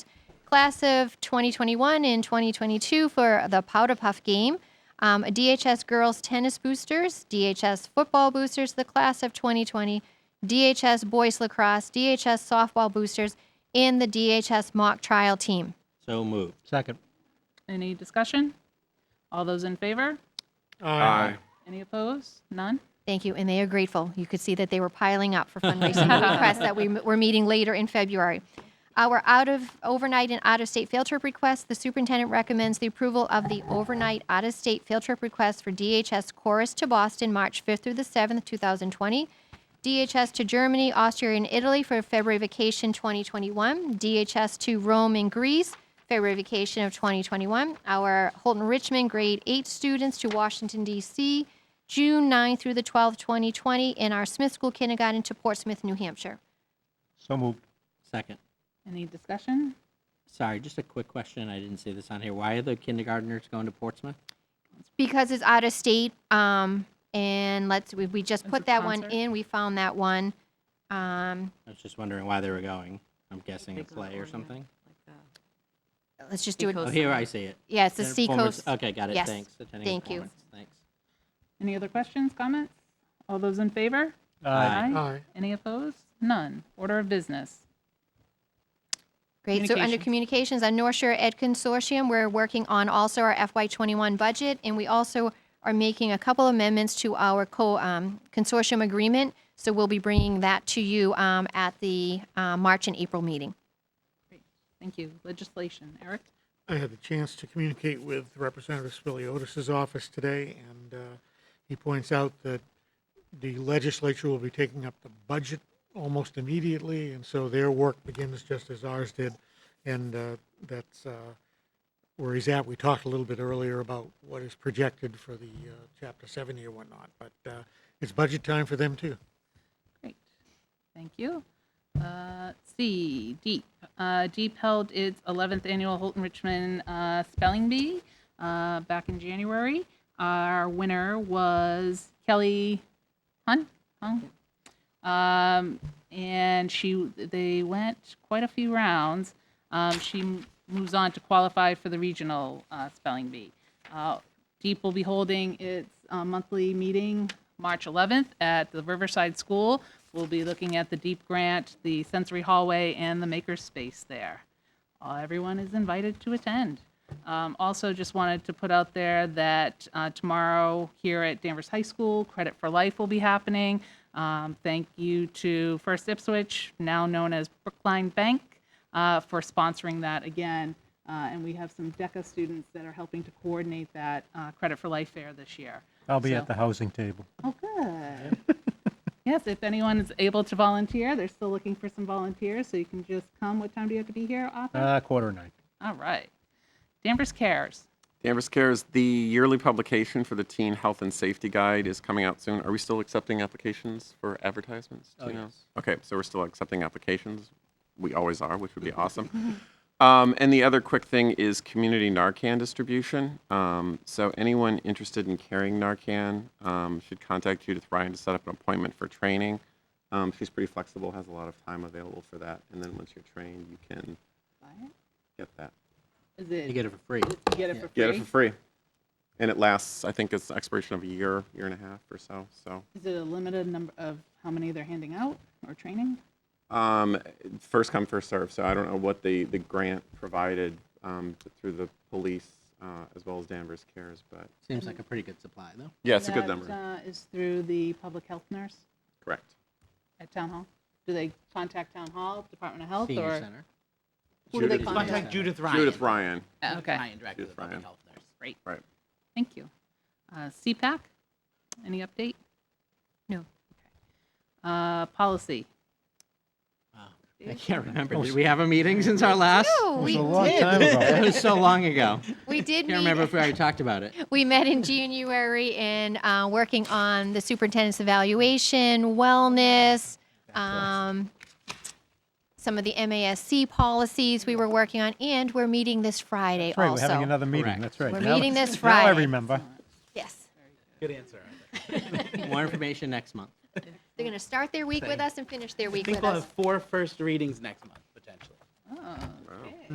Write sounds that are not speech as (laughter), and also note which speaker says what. Speaker 1: class of 2021 and 2022 for the Powder Puff game. Um, DHS girls tennis boosters, DHS football boosters, the class of 2020, DHS boys lacrosse, DHS softball boosters, and the DHS mock trial team.
Speaker 2: So moved.
Speaker 3: Second.
Speaker 4: Any discussion? All those in favor?
Speaker 5: Aye.
Speaker 4: Any opposed? None?
Speaker 1: Thank you, and they are grateful. You could see that they were piling up for fundraising requests that we m- were meeting later in February. Our out of overnight and out of state field trip requests, the superintendent recommends the approval of the overnight out of state field trip request for DHS Chorus to Boston, March 5th through the 7th, 2020. DHS to Germany, Austria, and Italy for February vacation 2021. DHS to Rome and Greece, February vacation of 2021. Our Holton Richmond grade 8 students to Washington, D.C., June 9 through the 12th, 2020, and our Smith School Kindergarten to Portsmouth, New Hampshire.
Speaker 3: So moved.
Speaker 2: Second.
Speaker 4: Any discussion?
Speaker 2: Sorry, just a quick question. I didn't see this on here. Why are the kindergartners going to Portsmouth?
Speaker 1: Because it's out of state, um, and let's, we, we just put
Speaker 4: a
Speaker 1: that one
Speaker 4: concert.
Speaker 1: in, we found that one. Um,
Speaker 2: I was just wondering why they were going. I'm guessing a play or something.
Speaker 1: let's just do it,
Speaker 2: Oh, here I see it.
Speaker 1: yeah, it's the
Speaker 2: Attending performance-
Speaker 1: Seacoast.
Speaker 2: Okay, got it.
Speaker 1: Yes.
Speaker 2: Thanks. Attending
Speaker 1: Thank you.
Speaker 2: performance. Thanks.
Speaker 4: Any other questions, comments? All those in favor?
Speaker 2: Aye.
Speaker 5: Aye.
Speaker 4: Any opposed? None. Order of business.
Speaker 1: Great. So under communications, on North Shore Ed Consortium, we're working on also our FY21 budget, and we also are making a couple amendments to our co, um, consortium agreement. So we'll be bringing that to you, um, at the, uh, March and April meeting.
Speaker 4: Thank you. Legislation. Eric?
Speaker 6: I had the chance to communicate with Representative Spiliotis's office today, and uh, he points out that the legislature will be taking up the budget almost immediately, and so their work begins just as ours did, and uh, that's uh, where he's at. We talked a little bit earlier about what is projected for the uh, Chapter 70 or whatnot, but uh, it's budget time for them too.
Speaker 4: Great. Thank you. Uh, C, Deep. Uh, Deep held its 11th annual Holton Richmond uh, Spelling Bee uh, back in January. Our winner was Kelly Hun. Hun? Um, and she, they went quite a few rounds. Um, she m- moves on to qualify for the regional uh, spelling bee. Uh, Deep will be holding its uh, monthly meeting March 11th at the Riverside School. We'll be looking at the Deep Grant, the sensory hallway, and the makerspace there. Uh, Everyone is invited to attend. Um, Also, just wanted to put out there that uh, tomorrow here at Danvers High School, Credit for Life will be happening. Um, Thank you to First Ipswich, now known as Brookline Bank, uh, for sponsoring that again. Uh, And we have some DECA students that are helping to coordinate that uh, Credit for Life Fair this year.
Speaker 3: I'll be
Speaker 4: So-
Speaker 3: at the housing table.
Speaker 4: Oh,
Speaker 3: (laughs)
Speaker 4: good. Yes, if anyone is able to volunteer, they're still looking for some volunteers, so you can just come. What time do you have to be here, Arthur?
Speaker 3: Uh, quarter nine.
Speaker 4: All right. Danvers Cares.
Speaker 5: Danvers Cares, the yearly publication for the Teen Health and Safety Guide is coming out soon. Are we still accepting applications for advertisements? Do
Speaker 2: Oh,
Speaker 5: you know?
Speaker 2: yes.
Speaker 5: Okay, so we're still accepting applications. We always are, which
Speaker 2: (laughs)
Speaker 5: would be awesome. Um, and the other quick thing is community Narcan distribution. Um, so anyone interested in carrying Narcan um, should contact Judith Ryan to set up an appointment for training. Um, she's pretty flexible, has a lot of time available for that. And then once you're trained, you can get that.
Speaker 4: Is it,
Speaker 2: You
Speaker 4: you
Speaker 2: get it for free.
Speaker 4: get it for
Speaker 5: Get it
Speaker 4: free?
Speaker 5: for free. And it lasts, I think it's the expiration of a year, year and a half or so. So,
Speaker 4: Is it a limited number of how many they're handing out or training?
Speaker 5: um, first come, first serve. So I don't know what the, the grant provided um, through the police uh, as well as Danvers Cares, but
Speaker 2: Seems like a pretty good supply, though.
Speaker 5: yeah, it's a good
Speaker 4: That,
Speaker 5: number.
Speaker 4: uh, Is through the public health nurse
Speaker 5: Correct.
Speaker 4: at Town Hall? Do they contact Town Hall, Department of Health,
Speaker 2: Senior
Speaker 4: or?
Speaker 2: Center.
Speaker 4: Who do they
Speaker 5: Judith-
Speaker 4: contact?
Speaker 7: Contact Judith Ryan.
Speaker 5: Judith Ryan.
Speaker 4: Uh, Okay.
Speaker 7: Ryan, director of the
Speaker 5: Judith
Speaker 7: public
Speaker 5: Ryan.
Speaker 7: health nurse.
Speaker 4: Great.
Speaker 5: Right.
Speaker 4: Thank you. Uh, CPAC, any update?
Speaker 1: No.
Speaker 4: Uh, Policy.
Speaker 2: I can't remember. Did we have a meeting since our last?
Speaker 1: Oh, we
Speaker 3: It was a long
Speaker 1: did. (laughs)
Speaker 3: time
Speaker 2: That
Speaker 3: ago.
Speaker 2: was so long ago.
Speaker 3: (laughs)
Speaker 1: We did
Speaker 2: Can't remember
Speaker 1: meet,
Speaker 2: if we already talked
Speaker 1: (laughs)
Speaker 2: about it.
Speaker 1: we met in January and uh, working on the superintendent's evaluation, wellness, um, some of the MASC policies we were working on, and we're meeting this Friday
Speaker 3: That's right, we're
Speaker 1: also.
Speaker 3: having another meeting.
Speaker 2: Correct.
Speaker 3: That's right.
Speaker 1: We're
Speaker 3: Now-
Speaker 1: meeting this
Speaker 3: Now I
Speaker 1: Friday.
Speaker 3: remember.
Speaker 1: yes.
Speaker 7: Good answer.
Speaker 2: More information next month.
Speaker 1: They're going to start their week with us and finish their
Speaker 7: I
Speaker 1: week
Speaker 7: think
Speaker 1: with
Speaker 7: we'll
Speaker 1: us.
Speaker 7: have four first readings next month, potentially.
Speaker 4: Oh, okay.